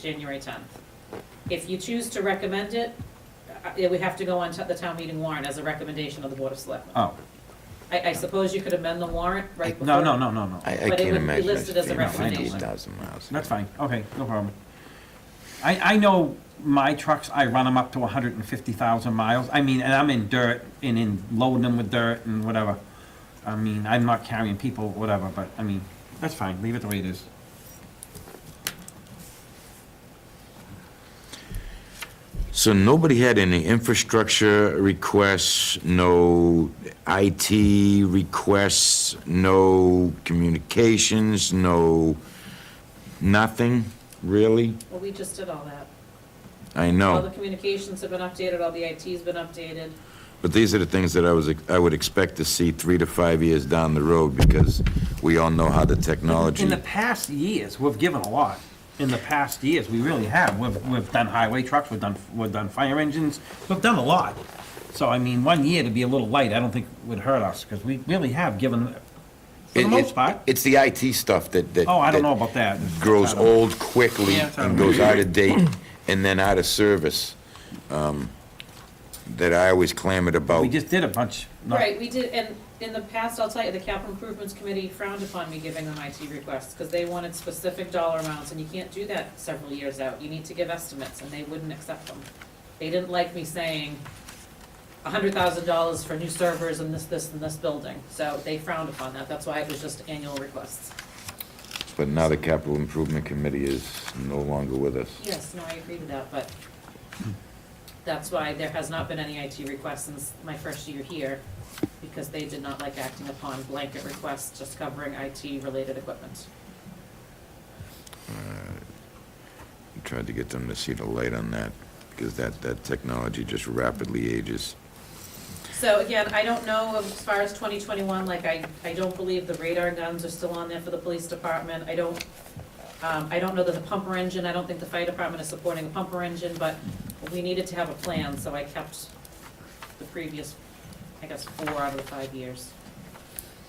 January 10th. If you choose to recommend it, uh, it would have to go on to the town meeting warrant as a recommendation of the Board of Selectmen. Oh, I, I suppose you could amend the warrant right before. no, no, no, no, no. I, I But it would can't be imagine us listed as a paying recommendation. fifty-eight thousand miles. That's fine, okay, no problem. I, I know my trucks, I run them up to hundred and fifty thousand miles. I mean, and I'm in dirt and in loading them with dirt and whatever. I mean, I'm not carrying people, whatever, but I mean, that's fine, leave it the way it is. So nobody had any infrastructure requests, no IT requests, no communications, no, nothing, really? Well, we just did all that. I All the know, communications have been updated, all the IT's been updated. but these are the things that I was, I would expect to see three to five years down the road because we all know how the technology, In the past years, we've given a lot. In the past years, we really have. We've, we've done highway trucks, we've done, we've done fire engines, we've done a lot. So I mean, one year to be a little light, I don't think would hurt us, because we really have given, for the It- it- most part. It's the IT stuff that, that. Oh, I don't that- know about that. grows old quickly Yeah, it's out and of- goes out of date and then out of service, um, that I always clamored We about. just did a bunch. not- Right, we did, and in the past, I'll tell you, the capital improvements committee frowned upon me giving them IT requests, because they wanted specific dollar amounts, and you can't do that several years out, you need to give estimates, and they wouldn't accept them. They didn't like me saying a hundred thousand dollars for new servers and this, this, and this building, so they frowned upon that, that's why it was just annual requests. But now the capital improvement committee is no longer with us. Yes, no, I agree with that, but that's why there has not been any IT requests since my first year here, because they did not like acting upon blanket requests just covering IT-related equipment. Uh, We Tried to get them to see the light on that, because that, that technology just rapidly ages. So again, I don't know as far as 2021, like I, I don't believe the radar guns are still on there for the police department. I don't, um, I don't know that the pumper engine, I don't think the fire department is supporting a pumper engine, but we needed to have a plan, so I kept the previous, I guess, four out of the five years.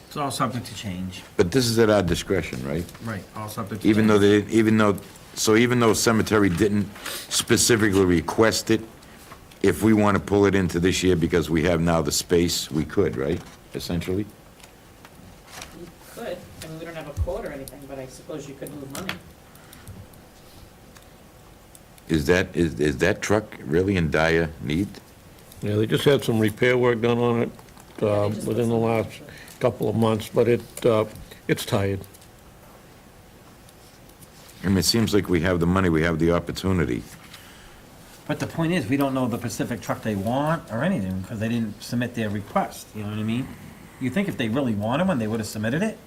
It's all subject to change. But this is at our discretion, right? Right, all subject to. Even though change. they, even though, so even though cemetery didn't specifically request it, if we want to pull it into this year because we have now the space, we could, right, essentially? You could, I mean, we don't have a quote or anything, but I suppose you could move money. Is that, is, is that truck really in dire need? Yeah, they just had some repair work done on it uh, Yeah, they just put within the some- last couple of months, but it, uh, it's tired. I mean, it seems like we have the money, we have the opportunity. But the point is, we don't know the specific truck they want or anything, because they didn't submit their request, you know what I mean? You think if they really wanted one, they would have submitted it?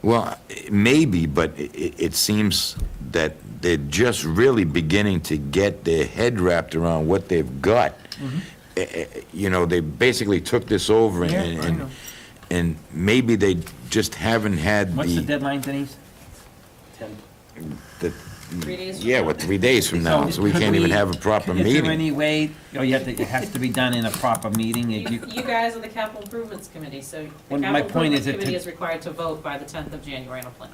Well, maybe, but i- i it seems that they're just really beginning to get their head wrapped around what they've got. Mm-hmm. Eh, eh, You know, they basically took this over and, Yeah, I know. and, and maybe they just haven't had What's the the. deadline, Denise? the- Mm. Three days from Yeah, now? what, three days from now, so we could can't even have a proper Is there meeting. any way, oh, you have to, it has to be done in a proper meeting, You, and you, you guys are the capital improvements committee, so the Well, my capital point improvements is it committee could- is required to vote by the tenth of January on a plan.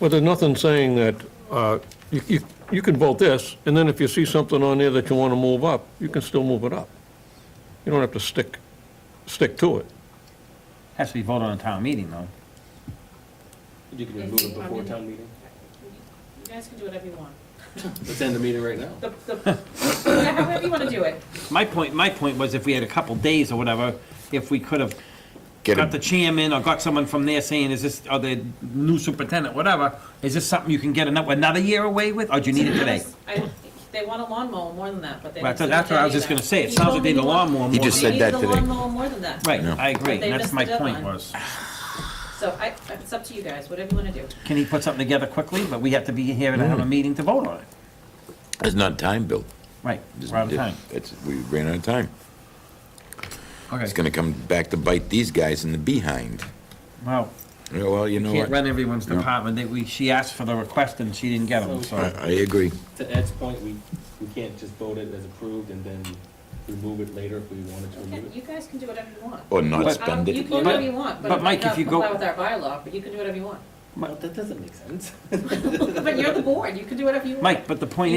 But there's nothing saying that, uh, you, you- you can vote this, and then if you see something on there that you want to move up, you can still move it up. You don't have to stick, stick to it. has to be voted on a town meeting, though. You can remove it before town meeting. You guys can do whatever you want. Let's end the meeting right now. The, the, yeah, however you wanna do it. My point, my point was if we had a couple days or whatever, if we could have Get got the a, chairman or got someone from there saying, is this, or the new superintendent, whatever, is this something you can get another, another year away with, or do you need it today? I, they want a lawnmower more than that, but they. Well, didn't that's- that's what I submit was just gonna that say, either. it sounds like they need a He told me lawnmower more. He just than- said They that needed a today. lawnmower more than that. Right, Yeah. I agree, But they that's missed my the point deadline. was, So I, it's up to you guys, whatever you wanna do. can he put something together quickly, but we have to be here and Mm. have a meeting to vote on it. it's not time, Bill. Right, we're out of time, It's, we ran out of time. It's okay, gonna come back to bite these guys in the behind. well, Yeah, Well, you know can't what? run everyone's No. department, they, we, she asked for the request and she didn't get them, I, so. I agree. To Ed's point, we, we can't just vote it as approved and then remove it later if we wanted to Okay, remove you it. guys can do whatever you want. Or not But- Um, spend it. You can do whatever you want, but But it Mike, might if not you go- comply with our bylaw, but you can do whatever you want. Well, that doesn't make sense. But you're the board, you can do whatever you want. Mike, but the point